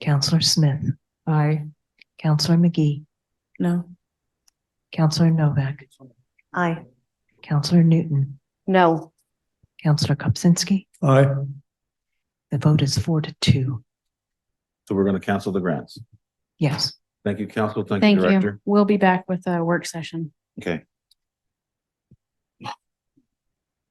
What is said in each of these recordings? Counselor Smith, Aye. Counselor McGee, No. Counselor Novak, Aye. Counselor Newton, No. Counselor Kupczynski. Aye. The vote is four to two. So we're going to cancel the grants. Yes. Thank you, council. Thank you, Thank director. you. We'll be back with a work session. Okay.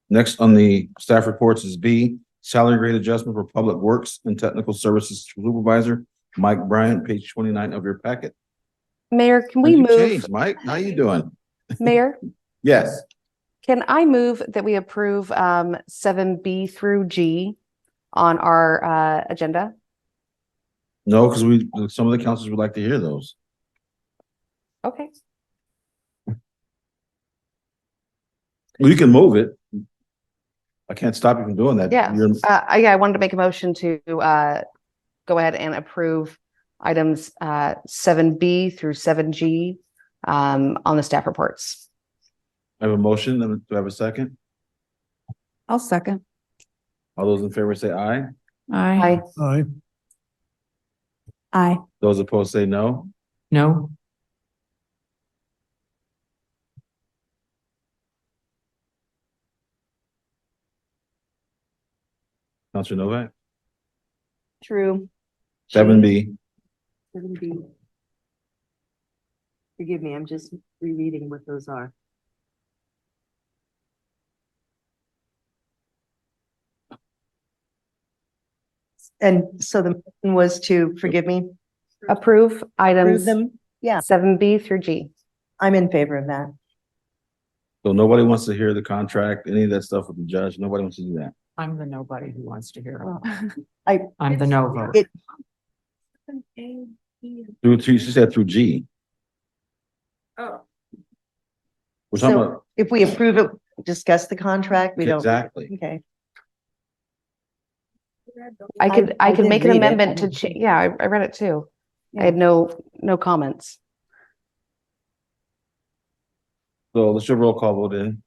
Next on the staff reports is B, salary grade adjustment for public works and technical services supervisor, Mike Bryant, page twenty-nine of your packet. Mayor, can we You move, changed, Mike, how you doing? Mayor, Yes, can I move that we approve um seven B through G on our uh agenda? no, because we, some of the councils would like to hear those. Okay, Well, You can move it. I can't stop you from doing that. Yeah. You're- uh, I, yeah, I wanted to make a motion to uh go ahead and approve items uh seven B through seven G um on the staff reports. I have a motion. Do I have a second? I'll second. All those in favor say aye. Aye. Aye. Aye. Those opposed say no. No. Counselor Novak, True. seven B. Seven B. Forgive me, I'm just rereading what those are. And so the motion was to, forgive me, Approve approve items them? Yeah, seven B through G. I'm in favor of that. So nobody wants to hear the contract, any of that stuff with the judge. Nobody wants to do that. I'm the nobody who wants to hear. Well, it. I- I'm the no vote. It- Through, to- she said through G. Oh. We're talking So about, if we approve it, discuss the contract, we don't. exactly. Okay. I could, I could did make an read it. amendment to, cha- yeah, I, I read it too. I had no, no comments. So let's do a roll call vote in.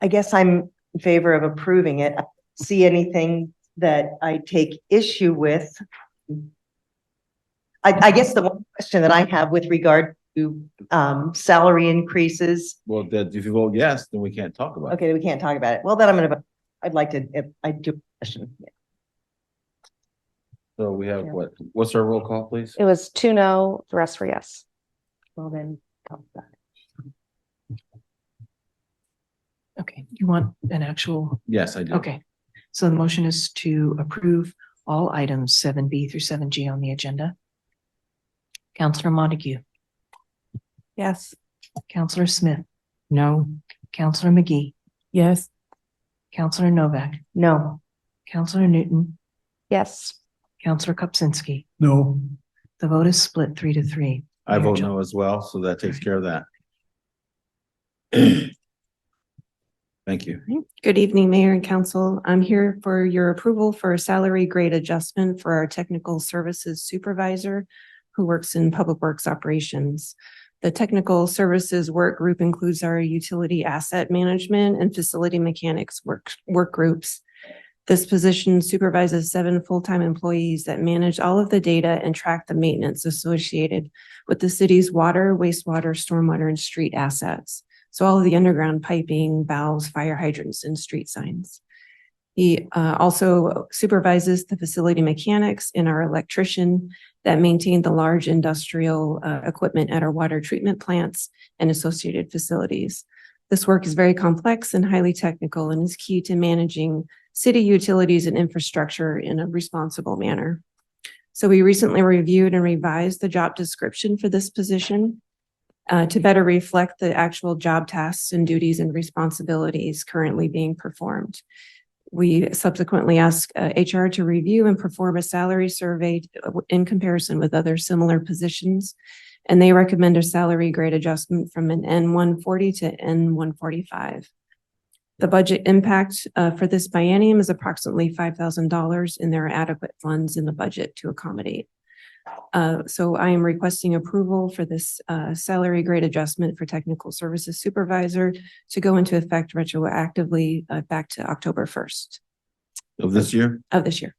I guess I'm in favor of approving it. I don't See anything that I take issue with? I, I guess the one question that I have with regard to, um, salary increases, Well, that, if you vote yes, then we can't talk about it. okay, we can't talk about it. Well, then I'm gonna, vote- I'd like to, if I do, question. So we have what, what's our roll call, please? It was two no, the rest were yes. well, then. talk about it. Okay. You want an actual? Yes, I do. Okay. So the motion is to approve all items seven B through seven G on the agenda. Counselor Montague, Yes. Counselor Smith, No. Counselor McGee, Yes. Counselor Novak, No, Counselor Newton, Yes. Counselor Kupczynski. No. The vote is split three to three. I vote Mayor Jo- no as well, so that takes care of that. Thank you. Good evening, Mayor and Council. I'm here for your approval for a salary grade adjustment for our technical services supervisor who works in Public Works Operations. The technical services work group includes our utility asset management and facility mechanics work, work groups. This position supervises seven full-time employees that manage all of the data and track the maintenance associated with the city's water, wastewater, stormwater, and street assets. So all of the underground piping, valves, fire hydrants, and street signs. He uh, also supervises the facility mechanics and our electrician that maintain the large industrial uh, equipment at our water treatment plants and associated facilities. This work is very complex and highly technical and is key to managing city utilities and infrastructure in a responsible manner. So we recently reviewed and revised the job description for this position uh, to better reflect the actual job tasks and duties and responsibilities currently being performed. We subsequently asked uh, HR to review and perform a salary survey uh, in comparison with other similar positions. And they recommend a salary grade adjustment from an N one forty to N one forty-five. The budget impact uh, for this biennium is approximately five thousand dollars, and there are adequate funds in the budget to accommodate. Uh, so I am requesting approval for this, uh, salary grade adjustment for technical services supervisor to go into effect retroactively, uh, back to October first Of this year? of this year.